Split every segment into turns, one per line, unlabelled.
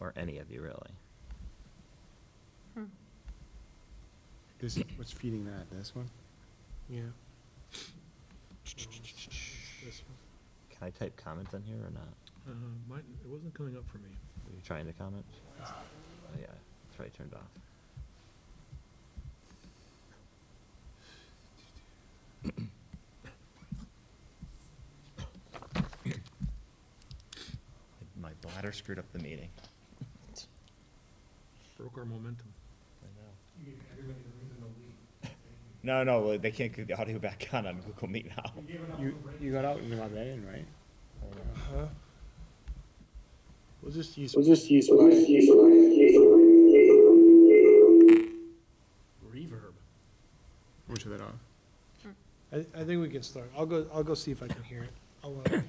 or any of you really.
Hmm.
This, what's feeding that? This one?
Yeah.
Can I type comments in here or not?
Uh, mine, it wasn't coming up for me.
Are you trying to comment? Oh, yeah, it's right turned off. My bladder screwed up the meeting.
Broke our momentum.
I know. No, no, well, they can't get the audio back on on Google Meet now.
You, you got out and let that in, right? Uh-huh. We'll just use.
We'll just use Ryan.
Reverb.
We'll shut that off.
I, I think we can start. I'll go, I'll go see if I can hear it. I'll, uh,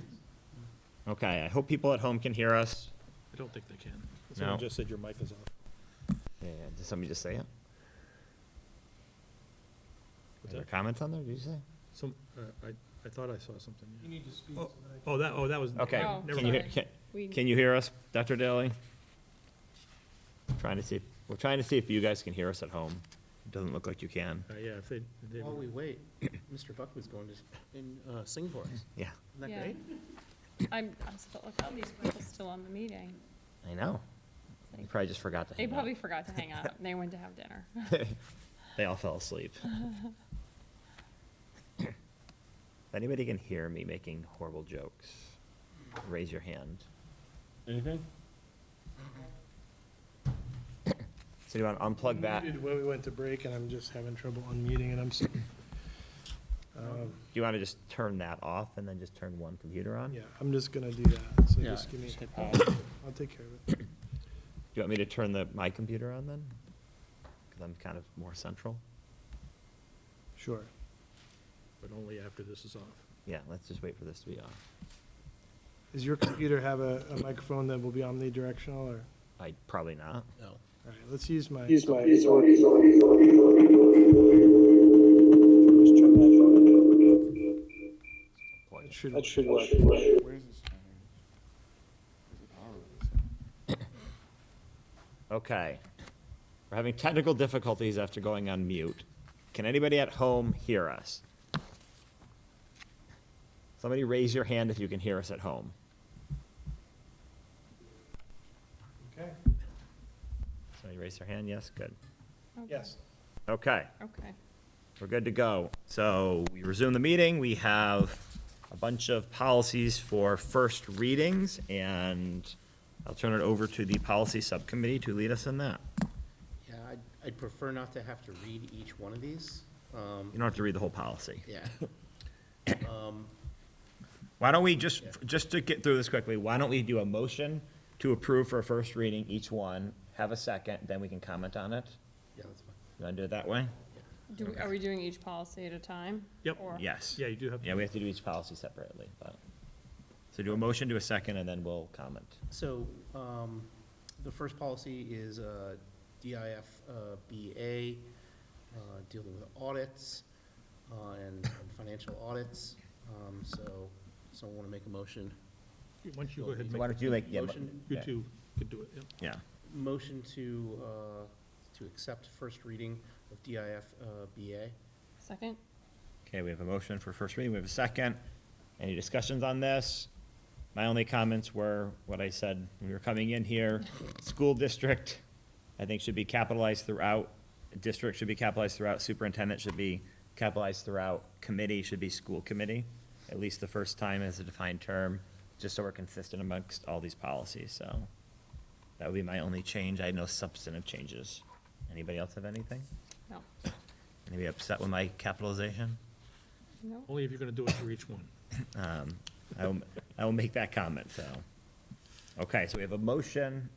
Okay, I hope people at home can hear us.
I don't think they can.
No.
Someone just said your mic is off.
Yeah, did somebody just say it? Were
What's
there
that?
comments on there, did you say?
Some, uh, I, I thought I saw something. yeah.
you need to speak.
Oh, Oh, that, oh, that was.
Okay,
Oh,
can you, hear-
sorry.
can,
We-
can you hear us, Dr. Daly? Trying to see, if- we're trying to see if you guys can hear us at home. It Doesn't look like you can.
Uh, yeah, if they, if they.
While we wait, Mr. Buckman's going to in, uh, sing for us. Isn't
Yeah,
that
Yeah.
great?
I'm, I'm still, look, all these people still on the meeting.
I know. They probably just forgot to
They
hang out.
probably forgot to hang out. They went to have dinner.
They all fell asleep. If anybody can hear me making horrible jokes, raise your hand.
Anything?
So you want to unplug that? Do
Muted Where we went to break and I'm just having trouble unmuting and I'm sorry. Um,
you want to just turn that off and then just turn one computer on?
Yeah, I'm just gonna do that. So
Yeah,
just give me,
just hit
I'll
pause.
I'll take care of it.
Do you want me to turn the, my computer on then? Because I'm kind of more central.
Sure.
But only after this is off.
Yeah, let's just wait for this to be off.
Does your computer have a, a microphone that will be omnidirectional or?
I, probably not.
No.
All right, let's use my,
Use my.
Plug
that
it.
should,
That should work.
Where is this?
Okay. We're having technical difficulties after going on mute. Can anybody at home hear us? Somebody raise your hand if you can hear us at home.
okay,
Somebody raise their hand, yes, good.
Okay.
yes.
Okay,
Okay.
we're good to go. So we resume the meeting. We have a bunch of policies for first readings, and I'll turn it over to the policy subcommittee to lead us in that.
Yeah, I'd, I'd prefer not to have to read each one of these. Um,
You don't have to read the whole policy.
yeah. Um,
Why don't we just, just to get through this quickly, why don't we do a motion to approve for a first reading each one, have a second, then we can comment on it?
yeah, that's fine.
You want to do it that way?
Do, we- are we doing each policy at a time?
Yep.
Or-
Yes.
Yeah, you do have.
Yeah, we have to do each policy separately, but, so do a motion, do a second, and then we'll comment.
So, um, the first policy is, uh, DIF, uh, BA, uh, dealing with audits, uh, and and financial audits. Um, so, someone wanna make a motion?
Why don't you go ahead and
Why
make,
don't you like, yeah, mo-
Motion.
you
yeah,
two could do it,
yeah,
yeah.
Motion to, uh, to accept first reading of DIF, uh, BA.
Second?
okay, we have a motion for first reading, we have a second. Any discussions on this? My only comments were what I said when we were coming in here. School district, I think should be capitalized throughout. District should be capitalized throughout. Superintendent should be capitalized throughout. Committee should be school committee, at least the first time as a defined term, just so we're consistent amongst all these policies, so. That would be my only change. I had no substantive changes. Anybody else have anything?
No.
Anybody upset with my capitalization?
No?
Only if you're gonna do it for each one.
Um, I will, I will make that comment, so. Okay, so we have a motion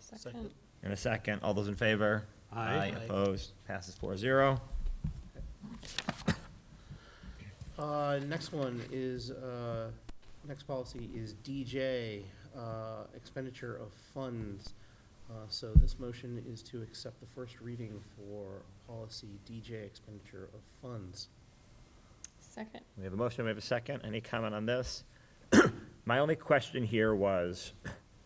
Second?
and a second. All those in favor?
Aye. Aye.
Opposed? Passes four zero.
Uh, next one is, uh, next policy is DJ, uh, expenditure of funds. Uh, so this motion is to accept the first reading for policy DJ expenditure of funds.
Second?
We have a motion, we have a second. Any comment on this? My only question here was,